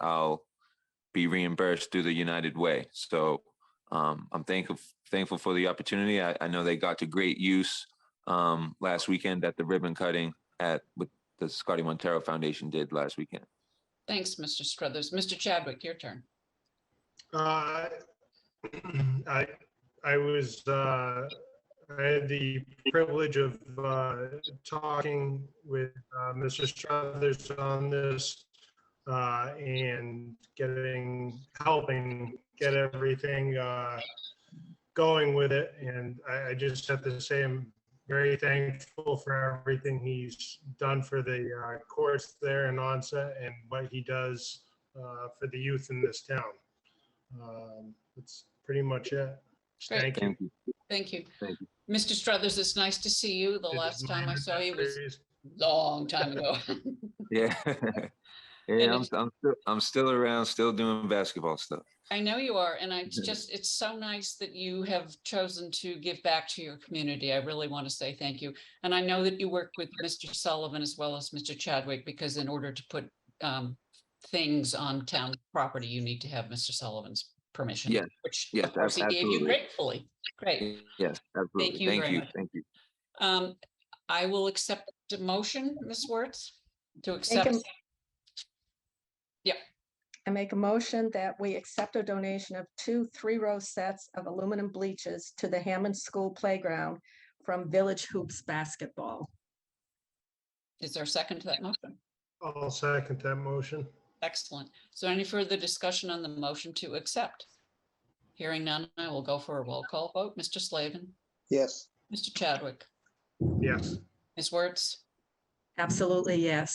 I'll be reimbursed through the United Way. So um, I'm thankful thankful for the opportunity. I, I know they got to great use um, last weekend at the ribbon cutting at what the Scotty Montero Foundation did last weekend. Thanks, Mr. Struthers. Mr. Chadwick, your turn. Uh, I, I was, uh, I had the privilege of uh, talking with uh, Mr. Struthers on this uh, and getting, helping get everything uh, going with it. And I, I just have to say I'm very thankful for everything he's done for the uh, course there in onset and what he does uh, for the youth in this town. Um, That's pretty much it. Great. Thank you. Thank you. Thank you. Thank Mr. Struthers, it's nice to see you. The This is last time my I saw you was series. a long time ago. Yeah. And yeah, I'm, it's- I'm still I'm still around, still doing basketball stuff. I know you are, and I it's just, it's so nice that you have chosen to give back to your community. I really want to say thank you. And I know that you work with Mr. Sullivan as well as Mr. Chadwick, because in order to put um, things on town property, you need to have Mr. Sullivan's permission. Yes, Which, yes, of course, he gave you absolutely. gratefully. Great. Yes, absolutely. you very Thank you. much. Thank you. Um, I will accept a motion, Ms. Wertz, to Make a accept. m- Yep. I make a motion that we accept a donation of two three-row sets of aluminum bleachers to the Hammond School Playground from Village Hoops Basketball. Is there a second to that motion? I'll second that motion. Excellent. Is there any further discussion on the motion to accept? Hearing none, I will go for a roll call vote. Mr. Slavin, yes, Mr. Chadwick, Yes, Ms. Wertz, Absolutely, yes.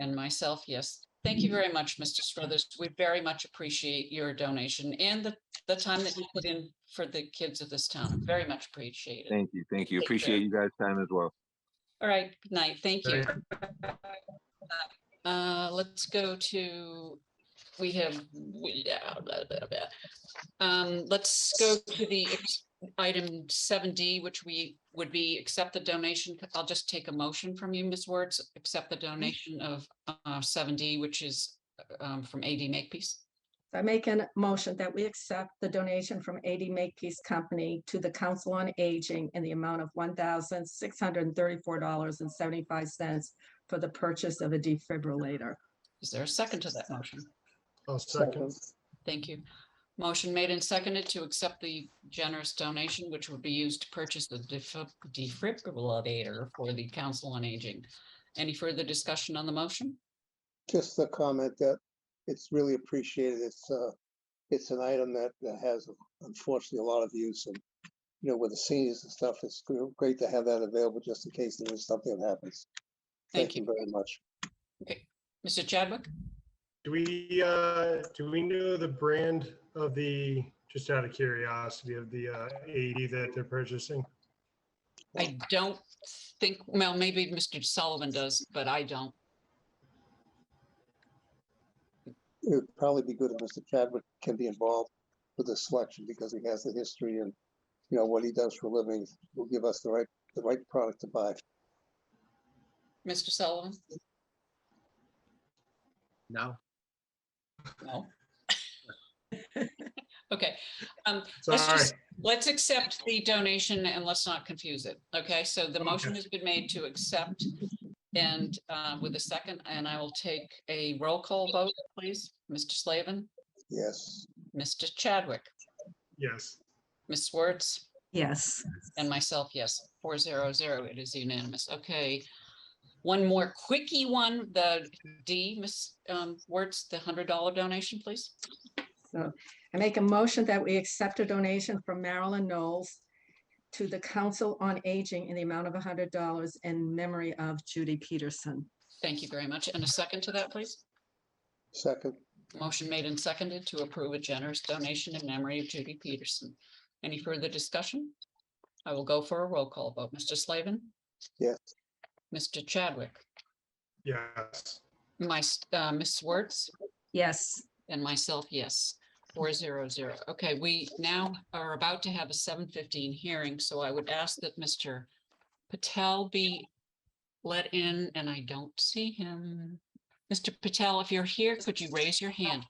and myself, yes. Thank you very much, Mr. Struthers. We very much appreciate your donation and the, the time that you put in for the kids of this town. Very much appreciated. Thank you. Thank you. Take care. Appreciate you guys' time as well. All right, good night. Thank you. Thank Uh, let's go to, we have, we- yeah, blah, blah, blah. Um, let's go to the ex- item seven D, which we would be accept the donation. I'll just take a motion from you, Ms. Wertz, accept the donation of uh seven D, which is um from AD Makepeace. I make a motion that we accept the donation from AD Makepeace Company to the Council on Aging in the amount of one thousand six hundred and thirty-four dollars and seventy-five cents for the purchase of a defibrillator. Is there a second to that motion? I'll second. Thank you. Motion made and seconded to accept the generous donation, which would be used to purchase the defib- defibrillator for the Council on Aging. Any further discussion on the motion? just the comment that it's really appreciated. It's, uh, it's an item that, that has unfortunately a lot of use and, you know, with the seniors and stuff, it's gr- great to have that available just in case there is something that happens. Thank you. Very much. Mr. Chadwick? Do we, uh, do we know the brand of the, just out of curiosity, of the uh, 80 that they're purchasing? I don't think, well, maybe Mr. Sullivan does, but I don't. It would probably be good if Mr. Chadwick can be involved with the selection because he has the history and, you know, what he does for a living will give us the right, the right product to buy. Mr. Sullivan? No, No. Okay, um, Let's Sorry. just- let's accept the donation and let's not confuse it. Okay, so the motion has been made to accept and uh, with a second, and I will take a roll call vote, please. Mr. Slavin, Yes. Mr. Chadwick, Yes. Ms. Swartz, Yes. and myself, yes, four zero zero. It is unanimous. Okay. One more quickie one, the D, Ms. um, Wertz, the hundred dollar donation, please. I make a motion that we accept a donation from Marilyn Knowles to the Council on Aging in the amount of hundred dollars in memory of Judy Peterson. Thank you very much. And a second to that, please. Second, Motion made and seconded to approve a generous donation in memory of Judy Peterson. Any further discussion? I will go for a roll call vote. Mr. Slavin, yes. Mr. Chadwick, Yes. my, s- uh, Ms. Wertz, Yes. and myself, yes. Four zero zero. Okay, we now are about to have a seven fifteen hearing, so I would ask that Mr. Patel be let in, and I don't see him. Mr. Patel, if you're here, could you raise your hand?